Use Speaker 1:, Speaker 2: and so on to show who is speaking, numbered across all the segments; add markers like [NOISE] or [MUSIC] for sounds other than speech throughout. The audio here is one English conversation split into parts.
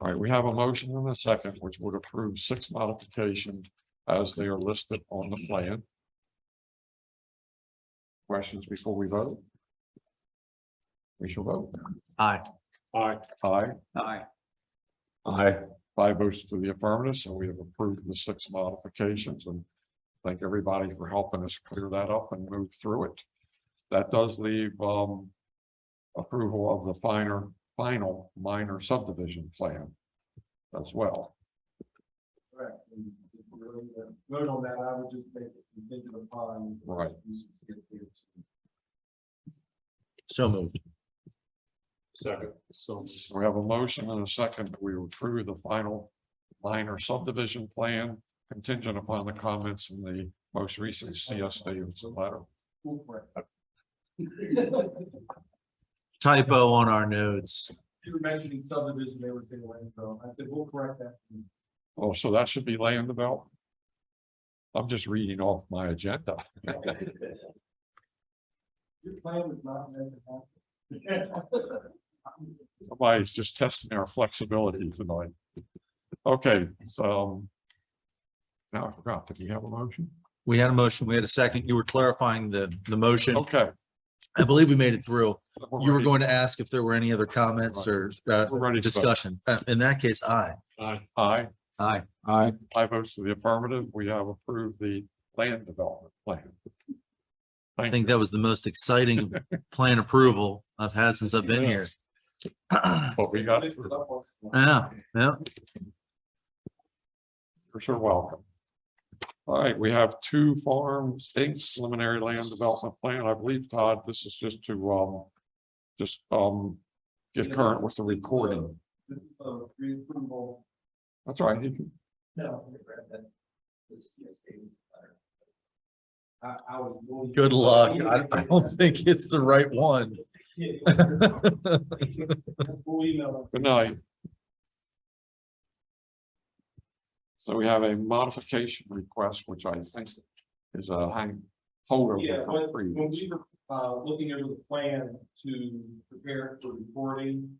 Speaker 1: All right, we have a motion and a second, which would approve six modifications as they are listed on the plan. Questions before we vote? We shall vote.
Speaker 2: Aye.
Speaker 1: Aye. Aye.
Speaker 2: Aye.
Speaker 1: Aye. Five votes to the affirmative, so we have approved the six modifications and thank everybody for helping us clear that up and move through it. That does leave, um, approval of the finer, final minor subdivision plan as well.
Speaker 3: Correct. And if we're going to Vote on that, I would just make it contingent upon.
Speaker 1: Right.
Speaker 3: uses against the use.
Speaker 2: So moved.
Speaker 1: Second. So we have a motion and a second that we approve the final minor subdivision plan contingent upon the comments in the most recent CS Davis letter.
Speaker 3: Cool, correct. [LAUGHS]
Speaker 2: Typo on our notes.
Speaker 3: You were mentioning subdivision, they were saying, land, so I said, we'll correct
Speaker 2: [LAUGHS]
Speaker 3: that.
Speaker 1: Oh, so that should be land development? I'm just reading off my agenda.
Speaker 3: Your plan was not meant to happen.
Speaker 1: Somebody's just testing our flexibility tonight. Okay, so. um, Now I forgot, did we have a motion?
Speaker 2: We had a motion, we had a second. You were clarifying the, the motion.
Speaker 1: Okay.
Speaker 2: I believe we made it through.
Speaker 1: we're
Speaker 2: You were
Speaker 1: ready.
Speaker 2: going to ask if there were any other comments or uh,
Speaker 1: We're ready to vote.
Speaker 2: discussion. Uh, In that case, aye.
Speaker 1: Aye,
Speaker 2: Aye.
Speaker 3: [LAUGHS]
Speaker 4: Aye.
Speaker 1: five votes to the affirmative, we have approved the land development plan.
Speaker 2: I
Speaker 1: Thank
Speaker 2: think
Speaker 1: you,
Speaker 2: that was the most [LAUGHS] exciting plan approval I've had since I've been here. [CLEARS THROAT]
Speaker 1: but we got it,
Speaker 3: This is up on-
Speaker 2: Yeah, yeah.
Speaker 1: for sure, welcome. All right, we have two farms, Inc., preliminary land development plan, I believe, Todd, this is just to, um, just, um, get current with the recording,
Speaker 3: This is a reapproval.
Speaker 1: that's all right, you can-
Speaker 3: No. I'm gonna grab that. This, yes, David's letter. I, I was. going to-
Speaker 2: Good luck. I, I don't think it's the right one.
Speaker 3: We'll email
Speaker 1: Good night. So we have a modification request, which I think is a hang holder.
Speaker 3: them. Yeah, when,
Speaker 1: for three
Speaker 3: when
Speaker 1: weeks.
Speaker 3: we were, uh, looking over the plan to prepare it for recording,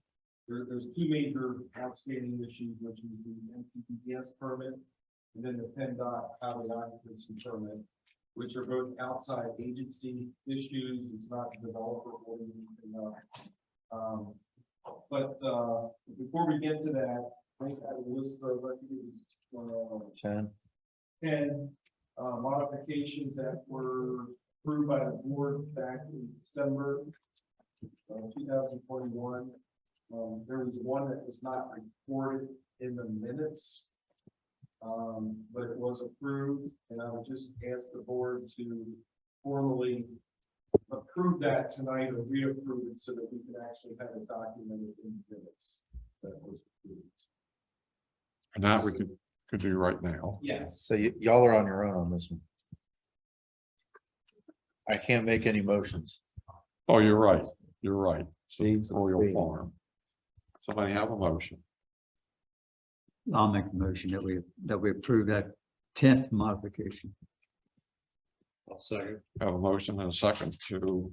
Speaker 3: there, there's two major outstanding issues, which is the MPPS permit and then the PennDOT highway occupancy permit, which are both outside agency issues. It's not developer or anything else. Um, but, uh, before we get to that, I think I will list of, I think it was, uh,
Speaker 2: Ten.
Speaker 3: ten uh, modifications that were approved by the board back in December two thousand twenty-one. Um, there was one that was not recorded in the minutes. Um, but it was approved, and I would just ask the board to formally approve that tonight or reapprove it so that we can actually have it documented in the minutes. That was approved.
Speaker 1: And that we could, could do right now.
Speaker 3: Yes,
Speaker 2: So y- y'all are on your own on this one. I can't make any motions.
Speaker 1: Oh, you're right, you're right. Royal Farm. Somebody have a motion,
Speaker 4: I'll make the motion that we, that we approve that tenth modification.
Speaker 1: have a motion and a second to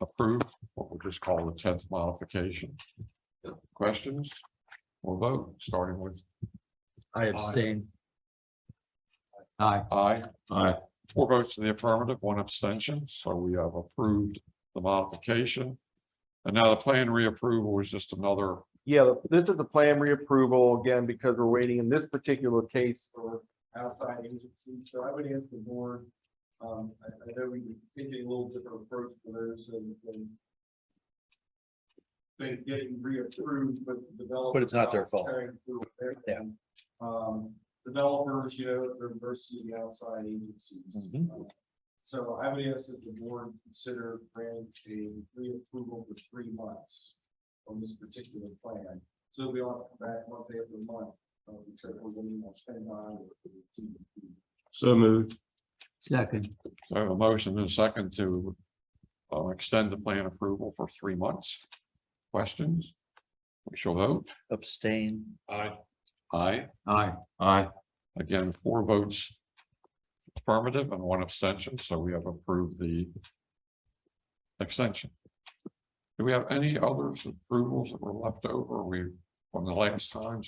Speaker 1: approve what we'll just call the tenth modification. Questions? We'll vote, starting with
Speaker 2: I abstain.
Speaker 4: Aye.
Speaker 1: Aye. Aye. Four votes in the affirmative, one abstention, so we have approved the modification. And now the plan reapproval was just another,
Speaker 3: Yeah, this is a plan reapproval again because we're waiting in this particular case for outside agencies. So I would ask the board. Um, I, I know we take a little different approach for those and, and they getting reapproved, but the developer.
Speaker 2: But it's not their fault.
Speaker 3: carrying through with their thing. Um, developers, you know, they're versus the outside agencies. So I would ask that the board consider granting a reapproval for three months on this particular plan. So we all come back month after month, uh, because we're getting more spend on.
Speaker 1: So moved.
Speaker 4: Second.
Speaker 1: I have a motion and a second to uh, extend the plan approval for three months. Questions? We shall vote.
Speaker 2: Abstain.
Speaker 1: Aye.
Speaker 4: Aye.
Speaker 1: Aye. Again, four votes affirmative and one abstention, so we have approved the extension. Do we have any other approvals that were left over? We from the last time,